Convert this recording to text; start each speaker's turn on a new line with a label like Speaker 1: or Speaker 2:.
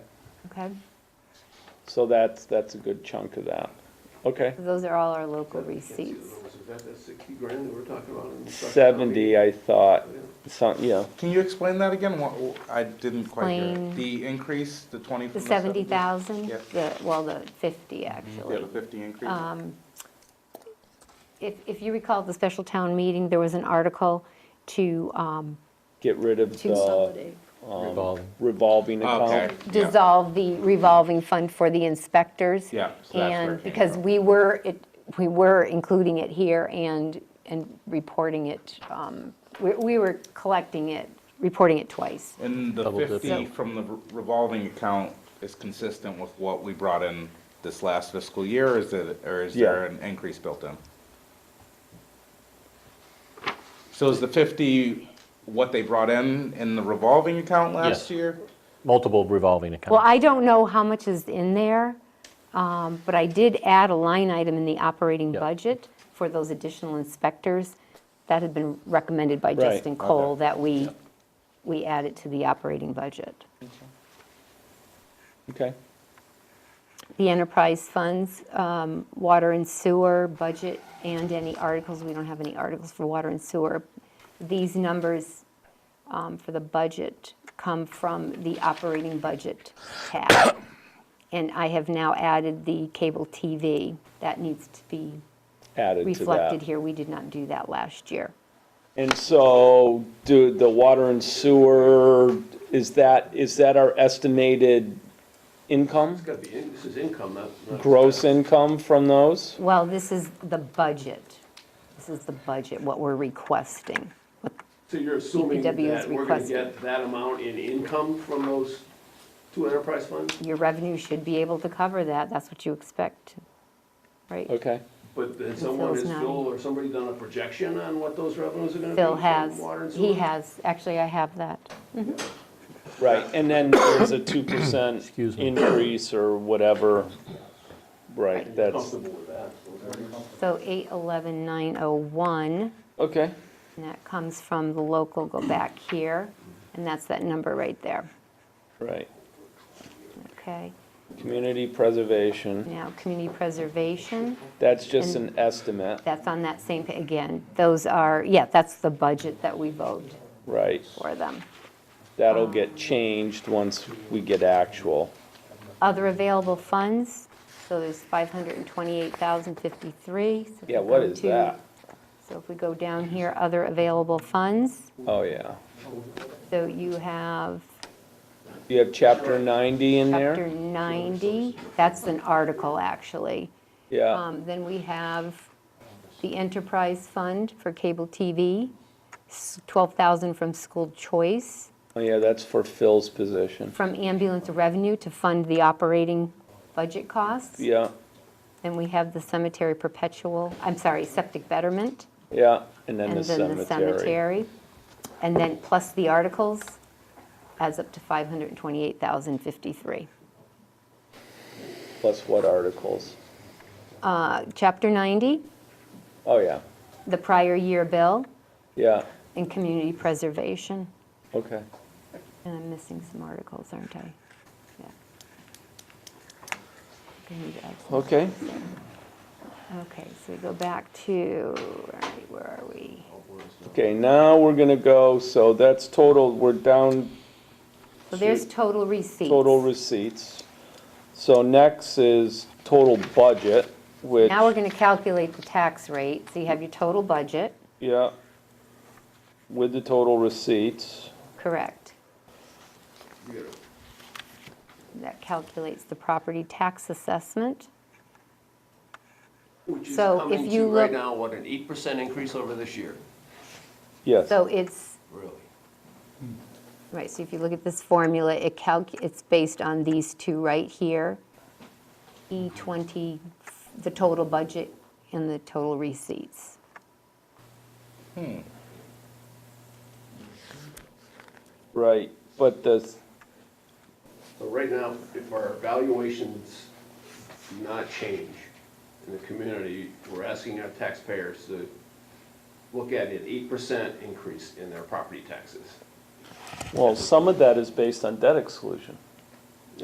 Speaker 1: Okay,
Speaker 2: So that's, that's a good chunk of that. Okay.
Speaker 1: so those are all our local
Speaker 3: Can't see the
Speaker 1: receipts.
Speaker 3: numbers. Is that that sixty grand that we're talking about? in the truck?
Speaker 2: Seventy, uh, I thought,
Speaker 3: Yeah.
Speaker 2: some, yeah,
Speaker 4: Can you explain that again? What, I didn't quite hear.
Speaker 1: Plain.
Speaker 4: it. The increase, the twenty
Speaker 1: The
Speaker 4: from the
Speaker 1: seventy thousand,
Speaker 4: Yep.
Speaker 1: the, well, the fifty
Speaker 4: Yeah,
Speaker 1: actually.
Speaker 4: the fifty increase.
Speaker 1: Um, If, if you recall the special town meeting, there was an article to um,
Speaker 2: get rid of the um,
Speaker 5: Revolving.
Speaker 2: revolving
Speaker 4: Okay.
Speaker 2: account.
Speaker 4: yeah.
Speaker 1: dissolve the revolving fund for the inspectors.
Speaker 4: Yeah, so that's where it
Speaker 1: And
Speaker 4: came
Speaker 1: because
Speaker 4: from.
Speaker 1: we were, it- we were including it here and, and reporting it, um, we- we were collecting it, reporting it twice.
Speaker 4: And the
Speaker 5: Double dip.
Speaker 4: fifty from the re- revolving account is consistent with what we brought in this last fiscal year, is it, or is there
Speaker 2: Yeah.
Speaker 4: an increase built in? So is the fifty what they brought in in the revolving account last
Speaker 5: Yes.
Speaker 4: year?
Speaker 5: Multiple revolving accounts.
Speaker 1: Well, I don't know how much is in there, um, but I did add a line item in the operating
Speaker 5: Yeah.
Speaker 1: budget for those additional inspectors. That had been recommended by
Speaker 2: Right,
Speaker 1: Justin Cole,
Speaker 4: okay.
Speaker 1: that we, we add it to the operating budget.
Speaker 2: Okay,
Speaker 1: The enterprise funds, um, water and sewer budget, and any articles, we don't have any articles for water and sewer. These numbers um, for the budget come from the operating budget tab. And I have now added the cable TV. That needs to be
Speaker 2: added to that.
Speaker 1: reflected here. We did not do that last year.
Speaker 2: And so, do the water and sewer, is that, is that our estimated income?
Speaker 3: It's gotta be, in- this is income, not. not-
Speaker 2: Gross income from those?
Speaker 1: Well, this is the budget. This is the budget, what we're requesting.
Speaker 3: So you're assuming
Speaker 1: DPW E is
Speaker 3: that we're gonna
Speaker 1: requesting.
Speaker 3: get that amount in income from those two enterprise funds?
Speaker 1: Your revenue should be able to cover that. That's what you expect, right?
Speaker 2: Okay,
Speaker 3: But then someone,
Speaker 1: Phil's
Speaker 3: has
Speaker 1: nodding.
Speaker 3: Phil or somebody done a projection on what those revenues are gonna be?
Speaker 1: Phil
Speaker 3: from
Speaker 1: has,
Speaker 3: water and
Speaker 1: he
Speaker 3: sewer?
Speaker 1: has, actually, I have that.
Speaker 2: right, and then there's a two percent
Speaker 5: Excuse me.
Speaker 2: increase or whatever. Right, that's,
Speaker 3: Comfortable with that?
Speaker 1: So 811901,
Speaker 2: okay,
Speaker 1: and that comes from the local, go back here, and that's that number right there,
Speaker 2: right.
Speaker 1: okay?
Speaker 2: Community preservation,
Speaker 1: Now, community preservation,
Speaker 2: that's just an estimate,
Speaker 1: that's on that same, pa- again, those are, yeah, that's the budget that we vote
Speaker 2: right?
Speaker 1: for them.
Speaker 2: That'll get changed once we get actual.
Speaker 1: Other available funds, so there's 528,053. So if
Speaker 2: Yeah,
Speaker 1: we
Speaker 2: what
Speaker 1: go
Speaker 2: is
Speaker 1: to-
Speaker 2: that?
Speaker 1: So if we go down here, other available funds,
Speaker 2: Oh, yeah.
Speaker 1: so you have
Speaker 2: You have chapter ninety in
Speaker 1: Chapter
Speaker 2: there?
Speaker 1: 90, that's an article, actually.
Speaker 2: Yeah,
Speaker 1: Um, Then we have the enterprise fund for cable TV, s- 12,000 from school choice,
Speaker 2: oh, yeah, that's for Phil's position.
Speaker 1: from ambulance revenue to fund the operating budget costs.
Speaker 2: Yeah,
Speaker 1: Then we have the cemetery perpetual, I'm sorry, septic betterment,
Speaker 2: yeah, and then
Speaker 1: and
Speaker 2: the
Speaker 1: then the
Speaker 2: cemetery.
Speaker 1: cemetery. And then plus the articles adds up to 528,053.
Speaker 2: Plus what articles?
Speaker 1: Uh, Chapter 90,
Speaker 2: Oh, yeah,
Speaker 1: the prior year bill
Speaker 2: yeah,
Speaker 1: and community preservation.
Speaker 2: okay.
Speaker 1: And I'm missing some articles, aren't I? Yeah. I need to add some-
Speaker 2: Okay,
Speaker 1: Okay, so we go back to, all right, where are we?
Speaker 2: okay, now we're gonna go, so that's total, we're down
Speaker 1: So there's total receipts.
Speaker 2: total receipts. So next is total budget, which,
Speaker 1: Now we're going to calculate the tax rate. So you have your total budget,
Speaker 2: yeah, with the total receipts.
Speaker 1: correct? That calculates the property tax assessment.
Speaker 3: Which is
Speaker 1: So if
Speaker 3: coming
Speaker 1: you
Speaker 3: to right
Speaker 1: look-
Speaker 3: now, what, an eight percent increase over this year?
Speaker 2: Yes.
Speaker 1: So it's,
Speaker 3: Really?
Speaker 1: right, so if you look at this formula, it calc, it's based on these two right here. E20, the total budget and the total receipts.
Speaker 2: Right, but the,
Speaker 3: So right now, if our valuations do not change in the community, we're asking our taxpayers to look at an eight percent increase in their property taxes.
Speaker 2: well, some of that is based on debt exclusion.